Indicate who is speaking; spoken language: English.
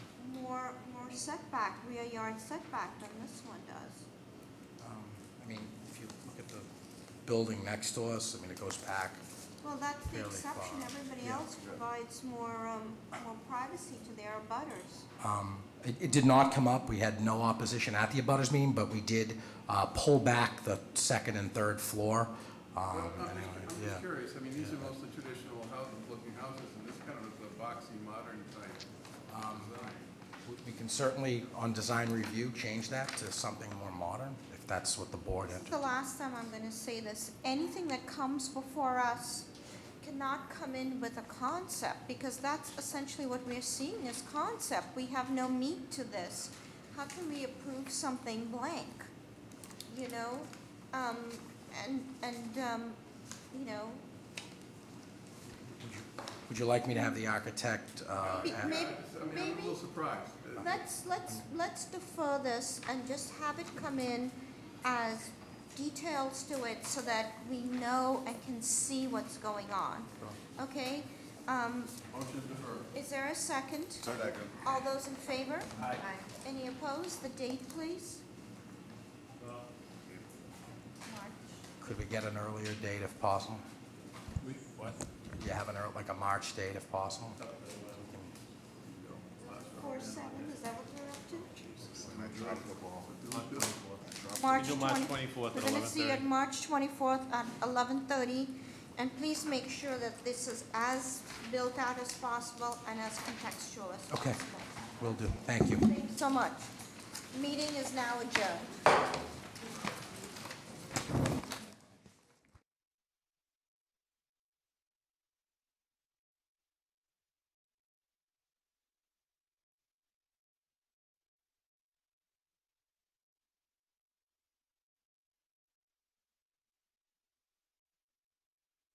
Speaker 1: setback, rear yard setback than this one does.
Speaker 2: Um, I mean, if you look at the building next to us, I mean, it goes back.
Speaker 1: Well, that's the
Speaker 2: Fairly
Speaker 1: exception,
Speaker 2: far,
Speaker 1: everybody
Speaker 2: yeah.
Speaker 1: else provides more, um, more privacy to their abutters.
Speaker 2: Um, It, it did not come up, we had no opposition at the abutters meeting, but we did uh, pull back the second and third floor.
Speaker 3: Well,
Speaker 2: Um,
Speaker 3: I'm
Speaker 2: and,
Speaker 3: just-
Speaker 2: uh,
Speaker 3: I'm
Speaker 2: yeah.
Speaker 3: just curious, I mean, these are mostly traditional houses, looking houses, and this kind of is a boxy, modern type um, design.
Speaker 2: We- We can certainly, on design review, change that to something more modern, if that's what the board
Speaker 1: This is
Speaker 2: entered.
Speaker 1: the last time I'm gonna say this, anything that comes before us cannot come in with a concept, because that's essentially what we're seeing is concept, we have no meat to this. How can we approve something blank, you know? Um, and, and, um, you know,
Speaker 2: Would you like me to have the architect? uh,
Speaker 1: Be-
Speaker 2: at-
Speaker 1: Maybe-
Speaker 3: Yeah, it's- I mean, I'm a little
Speaker 1: maybe-
Speaker 3: surprised. Uh,
Speaker 1: let's, let's, let's defer this and just have it come in as details to it so that we know and can see what's going on, okay? Um,
Speaker 3: Motion deferred.
Speaker 1: Is there a second?
Speaker 3: Second.
Speaker 1: All those in favor?
Speaker 3: Aye.
Speaker 1: Any opposed? The date, please? March.
Speaker 2: Could we get an earlier date if possible?
Speaker 3: We, what?
Speaker 2: You have an, ear- like a March date if possible?
Speaker 1: Four, seven, is that what we're up
Speaker 4: When I dropped the ball.
Speaker 1: to? March
Speaker 5: do March
Speaker 1: 20
Speaker 5: 24th at
Speaker 1: We're gonna see you at
Speaker 5: 11:30.
Speaker 1: March twenty-fourth at eleven thirty, and please make sure that this is as built out as possible and as contextual as
Speaker 2: Okay.
Speaker 1: possible.
Speaker 2: Will do, thank you.
Speaker 1: Thank you so much. Meeting is now adjourned.